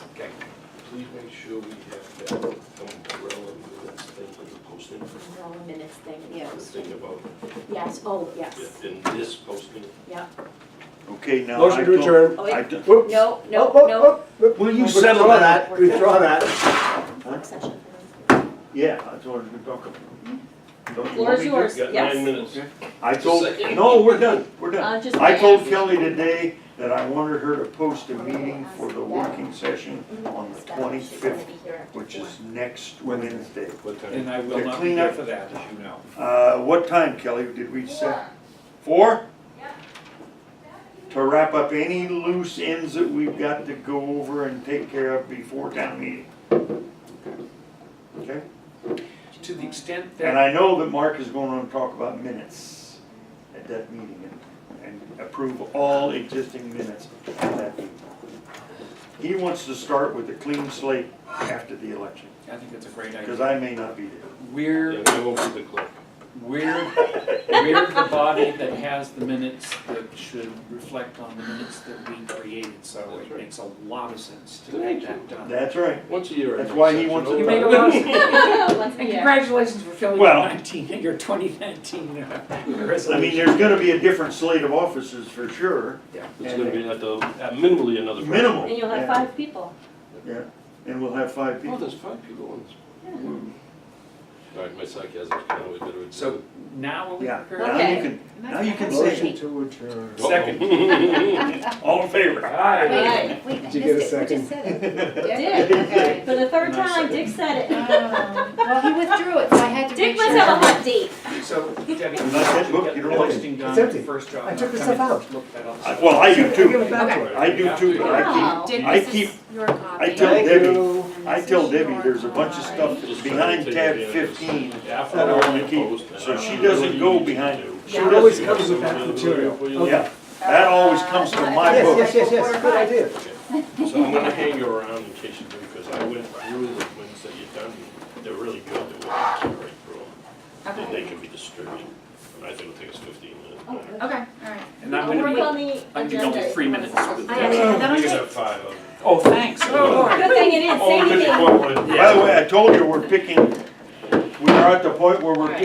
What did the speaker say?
please make sure we have that umbrella minutes thing for the posting, Roll the minutes thing, yeah. the thing about, Yes, oh, yes, in this posting. yeah. Okay, now. Motion I to don't- adjourn. Oh, I Oh, wait, don't- Whoops. no, no, Whoop, whoop, no, whoop, whoop. Will you Withdraw settle that? We're Withdraw done. that. work session. Yeah, that's what I'm talking about. Don't you Hmm? Floor want is me to- yours, Got nine yes. minutes. I told, Second. no, we're done, we're done. Uh, just. I told Kelly. Kelly today that I wanted her to post a meeting for the working session Mm-hmm. on the twenty-fifth, which is next Wednesday. What time? And I will To not be clean there up- for that, as you know. Uh, what time, Kelly, did we set? Four? To wrap up any loose ends that we've got to go over and take care of before town meeting. Okay? To the extent And that, I know that Mark is going to talk about minutes at that meeting and, and approve all existing minutes at that meeting. He wants to start with a clean slate after the election, I think that's a great because idea. I may not be there. We're, Yeah, I won't be the clerk. we're, we're the body that has the minutes that should reflect on the minutes that we created, so That's it right. makes a lot of sense to Thank get you. that done. That's right. Once a year. I That's make why he such wants an to You oath. make a lot of sense. Once a And year. congratulations for filling your Well- nineteen, your twenty nineteen uh, I mean, resolution. there's going to be a different slate of officers for sure. It's gonna be at the, at minimally another. person. Minimal. And you'll have Yeah. five people. Yeah, and we'll have five Oh, people. there's five people on this. All right, my sarcasm's kind of a bit of a. So now we Yeah. are Now prepared. Okay. you can, And that's now you can Motion. say, Motion to adjourn. Uh-oh. all in favor? Aye. Right. Wait, I missed Did you get a it, we just second? said it. Dick. Okay. For the third And I time, said- Dick said it. Um, Well, he withdrew it, so I had to Dick make must have a sure. hot date. So Debbie, get that book, you the don't like it. posting done, It's empty. first job. I not took the coming, stuff out. just Look that up. I- Well, I do I give too. it back to her. I do too, but I Wow. keep, Dick, I this keep, is your copy. I tell Thank Debbie, you. And I this tell is Debbie, your there's a bunch of stuff copy. that's behind tab fifteen Yeah, that I wanna keep, so she doesn't go behind. She It always doesn't, comes with that material. yeah, that always comes from my Yes, book. yes, yes, yes, good idea. So I'm gonna hang you around in case you do, because I went through the ones that you've done, they're really good, they're well carried through, and they Okay, can be distributed. And I think it'll take us fifteen minutes. Oh, but- good. okay, all right. And I'm We'll gonna work be, on the I'm gonna agenda. be three minutes with I actually had that on You can tape. have five of them. Oh, thanks. Good thing it is, Oh, same because you thing. want one. By the way, I told you, we're picking, we are at the point where we're